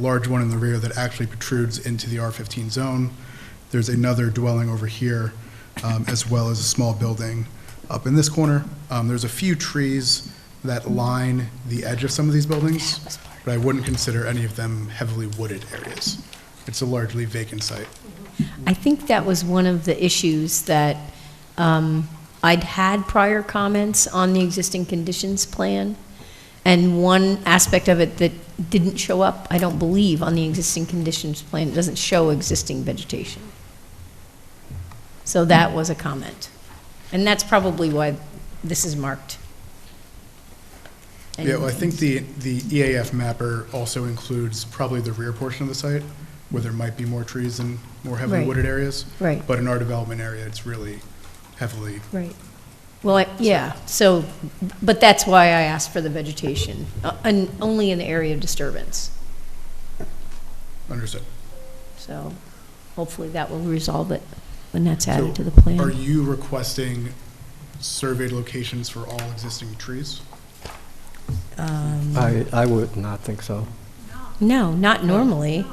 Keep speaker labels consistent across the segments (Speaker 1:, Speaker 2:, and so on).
Speaker 1: large one in the rear that actually protrudes into the R-15 zone. There's another dwelling over here, um, as well as a small building up in this corner. Um, There's a few trees that line the edge of some of these buildings, but I wouldn't consider any of them heavily wooded areas. It's a largely vacant site.
Speaker 2: I think that was one of the issues that um, I'd had prior comments on the existing conditions plan, and one aspect of it that didn't show up, I don't believe, on the existing conditions plan, it doesn't show existing vegetation. So that was a comment. And that's probably why this is marked.
Speaker 1: Yeah, well, I think the, the EAF mapper also includes probably the rear portion of the site, where there might be more trees and more heavily
Speaker 2: Right.
Speaker 1: wooded areas.
Speaker 2: Right.
Speaker 1: But in our development area, it's really heavily,
Speaker 2: Right. Well, I- yeah, so, but that's why I asked for the vegetation, uh, and only in the area of disturbance.
Speaker 1: understood.
Speaker 2: So hopefully that will resolve it when that's
Speaker 1: So
Speaker 2: added to the plan.
Speaker 1: Are you requesting surveyed locations for all existing trees?
Speaker 3: I, I would not think so.
Speaker 2: No, not normally.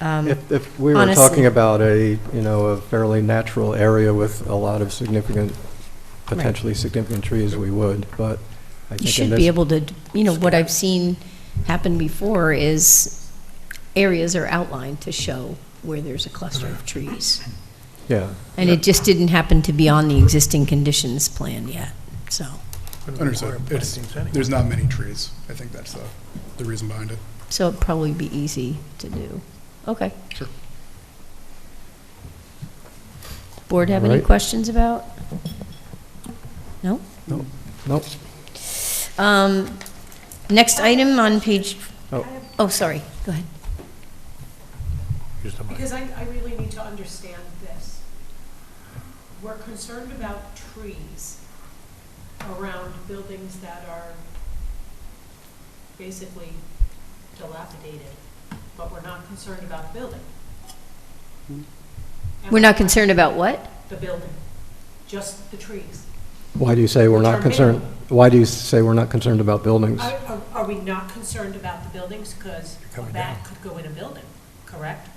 Speaker 3: If, if we were
Speaker 2: Um, honestly-
Speaker 3: talking about a, you know, a fairly natural area with a lot of significant, potentially significant trees, we would, but I
Speaker 2: You
Speaker 3: think in
Speaker 2: should be
Speaker 3: this,
Speaker 2: able to, you know, what I've seen happen before is areas are outlined to show where there's a cluster of trees.
Speaker 3: yeah.
Speaker 2: And it just didn't happen to be on the existing conditions plan yet, so,
Speaker 1: Understood. It's, there's not many trees. I think that's the, the reason behind it.
Speaker 2: so it'd probably be easy to do. Okay.
Speaker 1: Sure.
Speaker 2: Board have any
Speaker 3: Right.
Speaker 2: questions about? No?
Speaker 3: Nope.
Speaker 2: Um, Next item on page,
Speaker 3: Oh.
Speaker 2: oh, sorry, go ahead.
Speaker 4: Because I, I really need to understand this. We're concerned about trees around buildings that are basically dilapidated, but we're not concerned about the building. Am
Speaker 2: Hmm. We're
Speaker 4: I
Speaker 2: not
Speaker 4: correct?
Speaker 2: concerned about what?
Speaker 4: The building, just the trees.
Speaker 3: Why do you say we're
Speaker 4: Which
Speaker 3: not
Speaker 4: are
Speaker 3: concerned,
Speaker 4: many.
Speaker 3: why do you say we're not concerned about buildings?
Speaker 4: Are, are- are we not concerned about the buildings? Because a bat could go in a building, correct?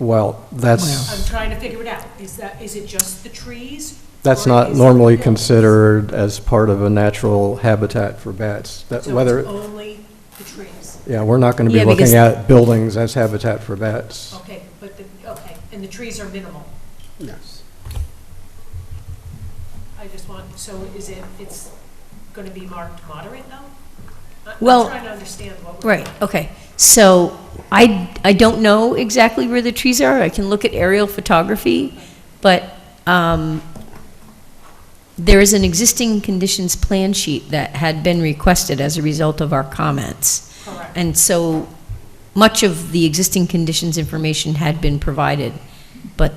Speaker 3: Well,
Speaker 4: I'm
Speaker 3: that's,
Speaker 4: trying to figure it out. Is that, is it just the trees?
Speaker 3: that's
Speaker 4: or
Speaker 3: not
Speaker 4: is it
Speaker 3: normally
Speaker 4: the buildings?
Speaker 3: considered as part of a natural habitat for bats. That,
Speaker 4: So it's
Speaker 3: whether,
Speaker 4: only the trees,
Speaker 3: yeah, we're not going to
Speaker 2: Yeah,
Speaker 3: be
Speaker 2: because-
Speaker 3: looking at buildings as habitat for bats.
Speaker 4: okay, but the, okay, and the trees are minimal.
Speaker 3: Yes.
Speaker 4: I just want, so is it, it's gonna be marked moderate though? I-
Speaker 2: Well,
Speaker 4: I'm trying to understand what we're.
Speaker 2: Right, okay. So I, I don't know exactly where the trees are. I can look at aerial photography, but um, there is an existing conditions plan sheet that had been requested as a result of our comments.
Speaker 4: Correct.
Speaker 2: And so much of the existing conditions information had been provided, but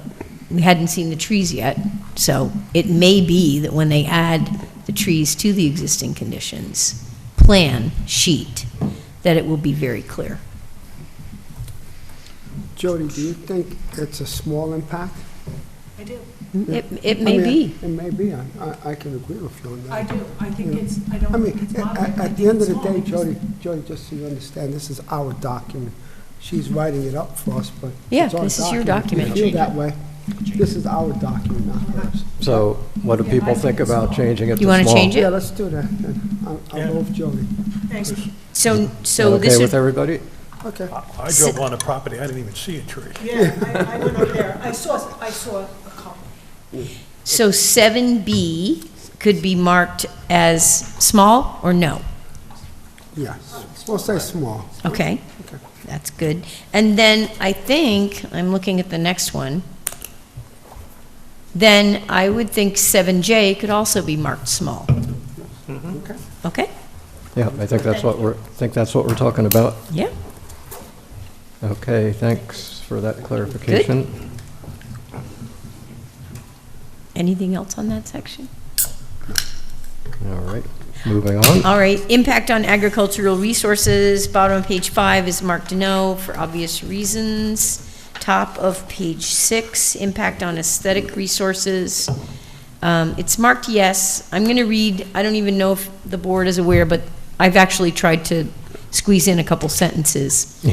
Speaker 2: we hadn't seen the trees yet. So it may be that when they add the trees to the existing conditions plan sheet, that it will be very clear.
Speaker 5: Jody, do you think it's a small impact?
Speaker 4: I do,
Speaker 2: It,
Speaker 3: Mm-hmm.
Speaker 2: it
Speaker 5: I
Speaker 2: may
Speaker 5: mean,
Speaker 3: Oh,
Speaker 2: be.
Speaker 5: It may be. I, I- I can agree with you on
Speaker 4: I
Speaker 5: that.
Speaker 4: do, I think it's, I don't
Speaker 5: I mean,
Speaker 4: think it's
Speaker 5: a-
Speaker 4: moderate.
Speaker 5: a-
Speaker 4: I
Speaker 5: at the
Speaker 4: think
Speaker 5: end of
Speaker 4: it's
Speaker 5: the
Speaker 4: small
Speaker 5: day,
Speaker 4: because
Speaker 5: Jody, Jody, just so you understand, this is our document. She's
Speaker 4: Mm-hmm.
Speaker 5: writing it up for us, but
Speaker 2: Yeah,
Speaker 5: it's our
Speaker 2: this is your document.
Speaker 5: If you feel that way, this is our document, not hers.
Speaker 3: So what do people think about changing it to
Speaker 2: You
Speaker 3: small?
Speaker 2: wanna change it?
Speaker 5: Yeah, let's do that. then. I'll- I'll move Jody.
Speaker 4: Thanks.
Speaker 2: So, so
Speaker 3: That
Speaker 2: this
Speaker 3: okay with
Speaker 2: would,
Speaker 3: everybody?
Speaker 5: Okay.
Speaker 6: I drove on a property, I didn't even see a tree.
Speaker 4: Yeah, I, I went over there, I saw, I saw a couple.
Speaker 2: so seven B could be marked as small or no?
Speaker 5: Yes. We'll say small.
Speaker 2: Okay, that's good. And then I think, I'm looking at the next one, then I would think 7J could also be marked small.
Speaker 3: Mm-hmm.
Speaker 2: Okay,
Speaker 3: Yeah, I think that's what we're, I think that's what we're talking about.
Speaker 2: yeah,
Speaker 3: Okay, thanks for that clarification.
Speaker 2: anything else on that section?
Speaker 3: All right, moving on.
Speaker 2: All right, impact on agricultural resources, bottom of page five is marked no for obvious reasons. Top of page six, impact on aesthetic resources. Um, It's marked yes. I'm going to read, I don't even know if the board is aware, but I've actually tried to squeeze in a couple sentences